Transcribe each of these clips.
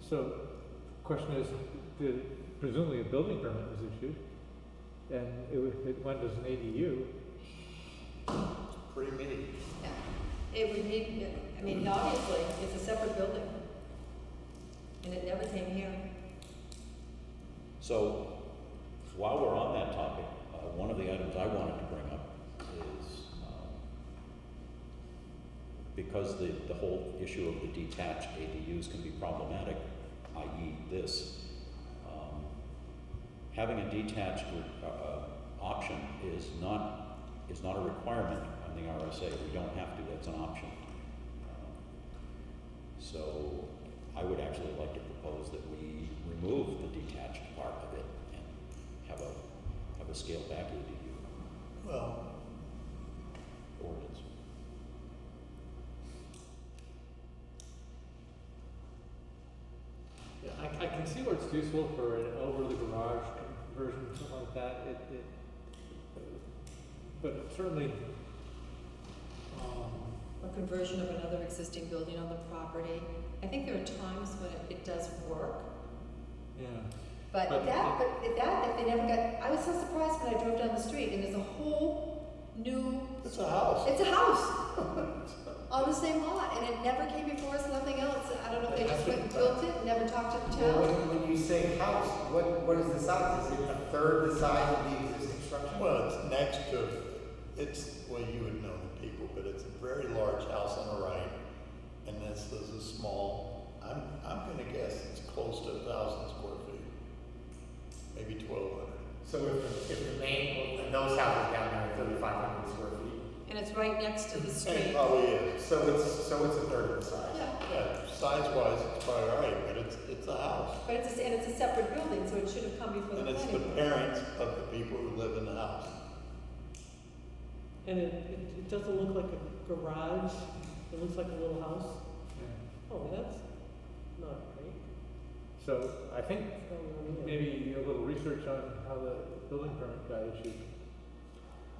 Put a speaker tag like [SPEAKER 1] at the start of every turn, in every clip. [SPEAKER 1] So, question is, did, presumably a building permit was issued, and it, wa- it went as an ADU.
[SPEAKER 2] Pretty many.
[SPEAKER 3] Yeah. It would need, I mean, obviously, it's a separate building. And it never came here.
[SPEAKER 4] So while we're on that topic, uh, one of the items I wanted to bring up is um, because the, the whole issue of the detached ADUs can be problematic, i.e. this, um, having a detached uh, uh, option is not, is not a requirement on the RSA. We don't have to, that's an option. Um, so I would actually like to propose that we remove the detached part of it and have a, have a scale back ADU
[SPEAKER 2] Well,
[SPEAKER 4] ordinance.
[SPEAKER 1] Yeah, I, I can see where it's useful for an over the garage conversion, something like that, it, it, but certainly, um,
[SPEAKER 3] Or conversion of another existing building on the property. I think there are times when it, it does work.
[SPEAKER 1] yeah.
[SPEAKER 3] But
[SPEAKER 1] But-
[SPEAKER 3] that, but if that, if they never got, I was so surprised when I drove down the street and there's a whole new,
[SPEAKER 2] it's a house.
[SPEAKER 3] it's a house on the same lot and it never came before us, nothing else. I don't know if they just went and built it, never talked to the
[SPEAKER 5] Well,
[SPEAKER 3] town.
[SPEAKER 5] when, when you say house, what, what is the size? Is it a third the size of the existing structure?
[SPEAKER 2] Well, it's next to, it's, well, you would know the people, but it's a very large house on the right. And this is a small, I'm, I'm gonna guess it's close to a thousand square feet. Maybe twelve hundred.
[SPEAKER 5] So if, if the main, and those houses down there are thirty-five hundred square feet,
[SPEAKER 3] And it's right next to the
[SPEAKER 2] And it
[SPEAKER 3] street.
[SPEAKER 2] probably is.
[SPEAKER 5] so it's, so it's a third of the size.
[SPEAKER 3] Yeah.
[SPEAKER 2] Yeah, size-wise, it's probably all right, but it's, it's a house.
[SPEAKER 3] But it's, a- and it's a separate building, so it should have come before the
[SPEAKER 2] And it's
[SPEAKER 3] planning
[SPEAKER 2] the
[SPEAKER 3] board.
[SPEAKER 2] parents of the people who live in the house.
[SPEAKER 6] And it, it, it doesn't look like a garage, it looks like a little house.
[SPEAKER 1] yeah.
[SPEAKER 6] Oh, that's not great.
[SPEAKER 1] So, I think
[SPEAKER 6] It's not really it.
[SPEAKER 1] maybe a little research on how the building permit got issued.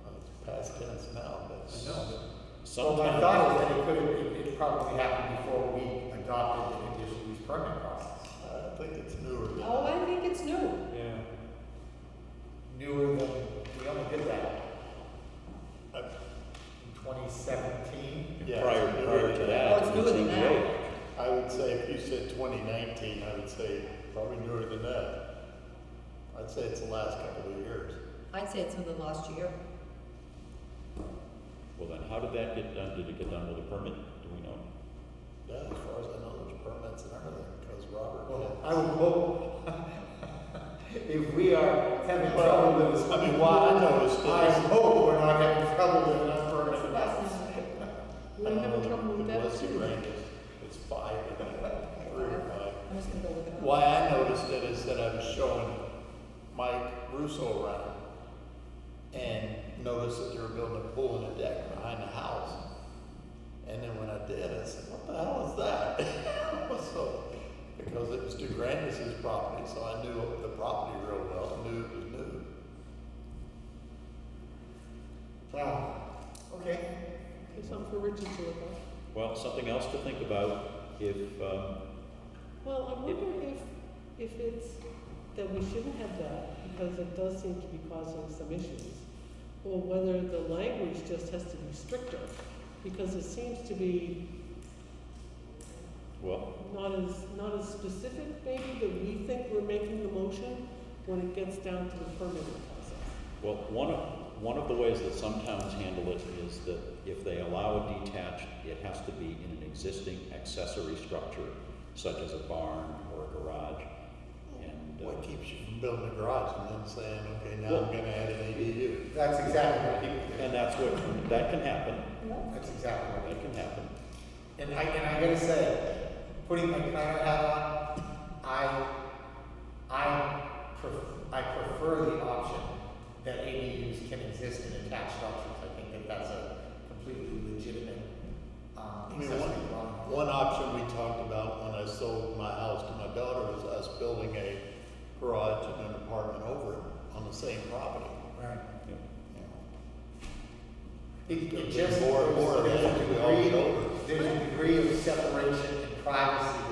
[SPEAKER 2] Well, It's past tense now, but.
[SPEAKER 1] I know, but
[SPEAKER 5] So my
[SPEAKER 4] Sometimes,
[SPEAKER 5] thought is that it could, it, it probably happened before we adopted the conditional use permit process.
[SPEAKER 2] I think it's newer. than-
[SPEAKER 3] Oh, I think it's new.
[SPEAKER 1] Yeah,
[SPEAKER 5] Newer than, we only did that uh,
[SPEAKER 2] I-
[SPEAKER 5] in twenty seventeen.
[SPEAKER 2] yeah,
[SPEAKER 4] prior,
[SPEAKER 2] it's newer
[SPEAKER 4] prior to
[SPEAKER 2] than
[SPEAKER 4] that,
[SPEAKER 3] Oh, it's
[SPEAKER 4] it was
[SPEAKER 3] newer than
[SPEAKER 4] ZBA.
[SPEAKER 2] I would say if you said twenty nineteen, I would say probably newer than that. I'd say it's the last couple of years.
[SPEAKER 3] I'd say it's within the last year.
[SPEAKER 4] Well, then how did that get done? Did it get done with a permit? Do we know?
[SPEAKER 2] Yeah, as far as I know, there's permits and everything, because
[SPEAKER 5] Well,
[SPEAKER 2] Robert.
[SPEAKER 5] I would hope, if we are having trouble with this,
[SPEAKER 2] I mean, what I
[SPEAKER 5] why,
[SPEAKER 2] noticed
[SPEAKER 5] I
[SPEAKER 2] is-
[SPEAKER 5] hope we're not having trouble with enough permits
[SPEAKER 6] We're having
[SPEAKER 2] Um,
[SPEAKER 6] trouble with that
[SPEAKER 2] unless you
[SPEAKER 6] too.
[SPEAKER 2] rank it, It's five, three or five.
[SPEAKER 3] I'm just gonna go look it up.
[SPEAKER 2] Why I noticed it is that I was showing Mike Russo around and noticed that they were building a pool and a deck behind the house. And then when I did, I said, what the hell is that? So, because it was DeGrandis's property, so I knew the property real well, I knew it was new.
[SPEAKER 5] Wow, okay.
[SPEAKER 6] It's something for Richard to look at.
[SPEAKER 4] Well, something else to think about if, um,
[SPEAKER 6] Well, I wonder if, if it's that we shouldn't have that, because it does seem to be causing some issues. Or whether the language just has to be stricter, because it seems to be
[SPEAKER 4] well,
[SPEAKER 6] not as, not as specific maybe that we think we're making the motion when it gets down to the permitting process.
[SPEAKER 4] Well, one of, one of the ways that some towns handle it is that if they allow a detached, it has to be in an existing accessory structure, such as a barn or a garage. And, uh,
[SPEAKER 2] What keeps you from building a garage and then saying, okay, now
[SPEAKER 4] Well-
[SPEAKER 2] I'm gonna add an ADU?
[SPEAKER 5] That's exactly what people
[SPEAKER 4] and
[SPEAKER 5] do.
[SPEAKER 4] that's what, that can happen,
[SPEAKER 5] That's exactly what
[SPEAKER 4] that can happen.
[SPEAKER 5] And I, and I gotta say, putting my planner hat on, I, I pref- I prefer the option that ADUs can exist in attached structures. I think that that's a completely legitimate,
[SPEAKER 2] I
[SPEAKER 5] um,
[SPEAKER 2] mean,
[SPEAKER 5] accessory dwelling.
[SPEAKER 2] one, one option we talked about when I sold my house to my daughter was us building a garage and an apartment over it on the same property.
[SPEAKER 5] Right.
[SPEAKER 4] Yeah.
[SPEAKER 2] you know.
[SPEAKER 5] It, it just,
[SPEAKER 2] More-
[SPEAKER 5] there's
[SPEAKER 2] more
[SPEAKER 5] a
[SPEAKER 2] of that we all get
[SPEAKER 5] degree,
[SPEAKER 2] over.
[SPEAKER 5] there's a degree of separation and privacy